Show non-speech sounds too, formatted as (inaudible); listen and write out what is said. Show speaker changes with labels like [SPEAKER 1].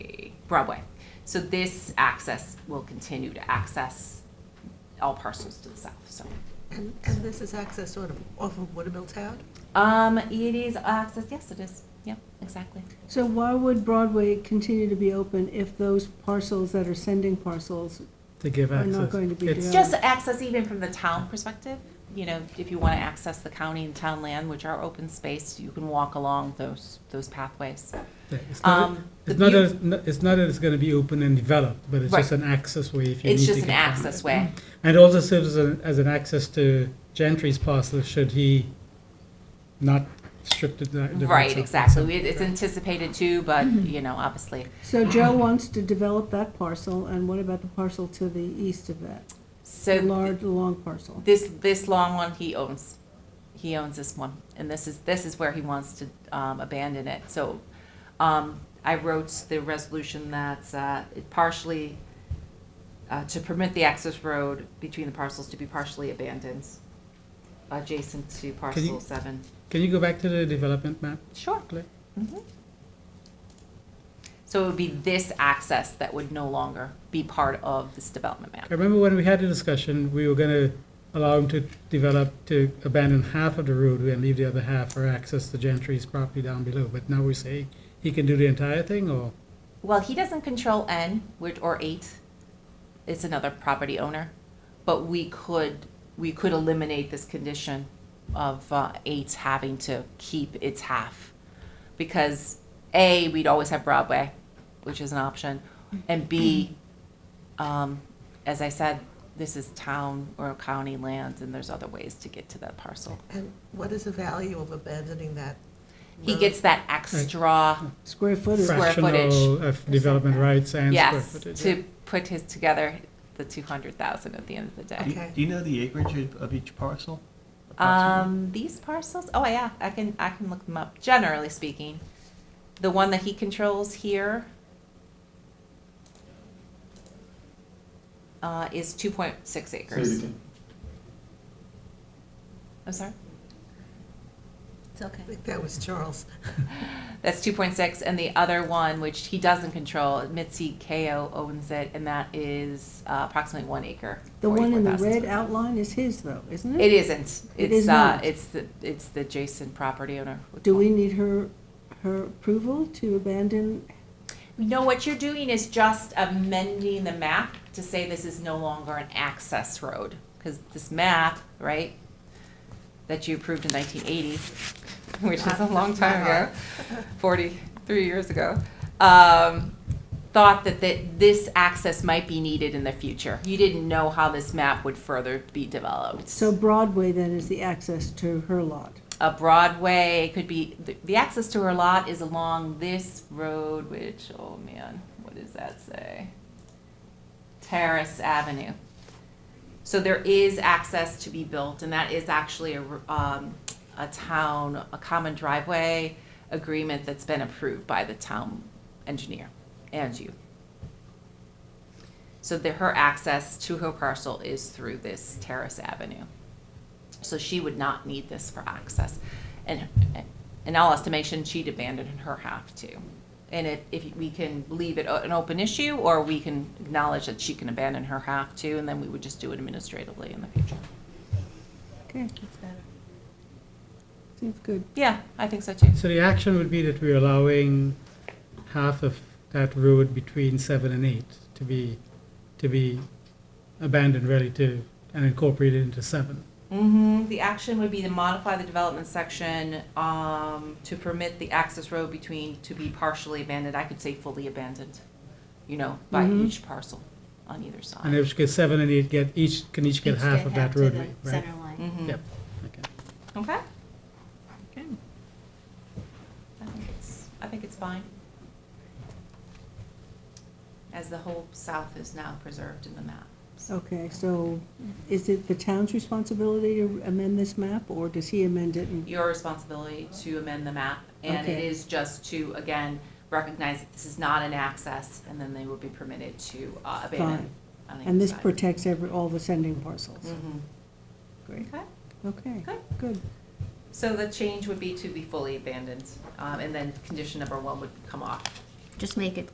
[SPEAKER 1] Broadway. So this access will continue to access all parcels to the south, so.
[SPEAKER 2] And, and this is access sort of off of Watermill Town?
[SPEAKER 1] Um, it is access, yes, it is, yeah, exactly.
[SPEAKER 3] So why would Broadway continue to be open if those parcels that are sending parcels?
[SPEAKER 4] to give
[SPEAKER 3] Are
[SPEAKER 4] access.
[SPEAKER 3] not going to be
[SPEAKER 4] It's-
[SPEAKER 3] Yeah.
[SPEAKER 1] Just access even from the town perspective, you know, if you want to access the county and town land, which are open space, you can walk along those, those pathways.
[SPEAKER 4] yeah, It's not,
[SPEAKER 1] Um, the
[SPEAKER 4] it's
[SPEAKER 1] beau-
[SPEAKER 4] not, that it's not- it's not that it's gonna be open and developed, but it's
[SPEAKER 1] Right.
[SPEAKER 4] just an access way if you need
[SPEAKER 1] It's
[SPEAKER 4] to
[SPEAKER 1] just an
[SPEAKER 4] get down
[SPEAKER 1] access
[SPEAKER 4] there.
[SPEAKER 1] way.
[SPEAKER 4] And it also serves as an, as an access to Gentry's parcel, should he not strip the. the- the rights
[SPEAKER 1] Right,
[SPEAKER 4] of it.
[SPEAKER 1] exactly.
[SPEAKER 4] So-
[SPEAKER 1] We- It's anticipated too, but, you know, obviously.
[SPEAKER 3] So
[SPEAKER 2] (clears throat)
[SPEAKER 3] Joe wants to develop that parcel, and what about the parcel to the east of that?
[SPEAKER 1] So.
[SPEAKER 3] The large, the long parcel?
[SPEAKER 1] This, this long one he owns. He owns this one, and this is, this is where he wants to um, abandon it. So um, I wrote the resolution that's uh, it partially, uh, to permit the access road between the parcels to be partially abandoned, adjacent to parcel seven.
[SPEAKER 4] Can you go back to the development map?
[SPEAKER 1] Sure.
[SPEAKER 4] Click.
[SPEAKER 1] Mhm. So it would be this access that would no longer be part of this development
[SPEAKER 4] I
[SPEAKER 1] map.
[SPEAKER 4] remember when we had the discussion, we were gonna allow him to develop, to abandon half of the road and leave the other half for access to Gentry's property down below, but now we say he can do the entire thing, or?
[SPEAKER 1] Well, he doesn't control N, which, or eight. It's another property owner, but we could, we could eliminate this condition of uh, eight having to keep its half. Because A, we'd always have Broadway, which is an option, and B, um, as I said, this is town or county land, and there's other ways to get to that parcel.
[SPEAKER 2] And what is the value of abandoning that?
[SPEAKER 1] He
[SPEAKER 2] road?
[SPEAKER 1] gets that extra,
[SPEAKER 3] Square footage?
[SPEAKER 1] Right. Square footage.
[SPEAKER 4] Fractional of development rights and square
[SPEAKER 1] yes,
[SPEAKER 4] footage. yeah.
[SPEAKER 1] to put his together, the two hundred thousand at the end of the day.
[SPEAKER 5] Do you-
[SPEAKER 2] Okay.
[SPEAKER 5] Do you know the acreage of- of each parcel? approximately?
[SPEAKER 1] Um, these parcels, oh yeah, I can, I can look them up, generally speaking. The one that he controls here uh, is two point six acres. I'm sorry,
[SPEAKER 6] It's okay.
[SPEAKER 2] I think that was Charles.
[SPEAKER 1] that's two point six, and the other one, which he doesn't control, Mitzi KO owns it, and that is uh, approximately one acre.
[SPEAKER 3] The one in the
[SPEAKER 1] 44,000
[SPEAKER 3] red outline is his, though, isn't it?
[SPEAKER 1] It isn't,
[SPEAKER 3] It
[SPEAKER 1] it's,
[SPEAKER 3] is
[SPEAKER 1] uh,
[SPEAKER 3] not.
[SPEAKER 1] it's the, it's the adjacent property owner. with
[SPEAKER 3] Do
[SPEAKER 1] one.
[SPEAKER 3] we need her, her approval to abandon?
[SPEAKER 1] No, what you're doing is just amending the map to say this is no longer an access road. Because this map, right, that you approved in 1980, (laughs) which is a long time ago, 43 years ago, um, thought that that this access might be needed in the future. You didn't know how this map would further be developed.
[SPEAKER 3] So Broadway then is the access to her lot?
[SPEAKER 1] A Broadway, it could be, the- the access to her lot is along this road, which, oh man, what does that say? Terrace Avenue. So there is access to be built, and that is actually a, r- um, a town, a common driveway agreement that's been approved by the town engineer and you. So that her access to her parcel is through this Terrace Avenue. So she would not need this for access. And in all estimation, she'd abandon her half too. And if, if we can leave it o- an open issue, or we can acknowledge that she can abandon her half too, and then we would just do it administratively in the future.
[SPEAKER 3] Okay, seems good.
[SPEAKER 1] Yeah, I think so too.
[SPEAKER 4] So the action would be that we're allowing half of that road between seven and eight to be, to be abandoned, really, to, and incorporated into seven.
[SPEAKER 1] Mm-hmm. The action would be to modify the development section, um, to permit the access road between, to be partially abandoned, I could say fully abandoned, you know, by
[SPEAKER 3] Mhm.
[SPEAKER 1] each parcel on either side.
[SPEAKER 4] And if seven and eight get, each, can each get
[SPEAKER 6] Each
[SPEAKER 4] half of that
[SPEAKER 6] to the
[SPEAKER 4] roadway, right?
[SPEAKER 6] Center line.
[SPEAKER 1] Mhm.
[SPEAKER 4] Yep, okay.
[SPEAKER 1] Okay. Okay. I think it's, I think it's fine. As the whole south is now preserved in the map.
[SPEAKER 3] Okay, so is it the town's responsibility to amend this map, or does he amend it? and-
[SPEAKER 1] Your responsibility to amend the map, and it
[SPEAKER 3] Okay.
[SPEAKER 1] is just to, again, recognize that this is not an access, and then they would be permitted to uh, abandon.
[SPEAKER 3] Fine.
[SPEAKER 1] on either
[SPEAKER 3] And this
[SPEAKER 1] side.
[SPEAKER 3] protects every, all the sending parcels?
[SPEAKER 1] Mhm.
[SPEAKER 3] Great,
[SPEAKER 1] Okay.
[SPEAKER 3] okay,
[SPEAKER 1] Good.
[SPEAKER 3] good.
[SPEAKER 1] So the change would be to be fully abandoned, um, and then condition number one would come off.
[SPEAKER 6] Just make it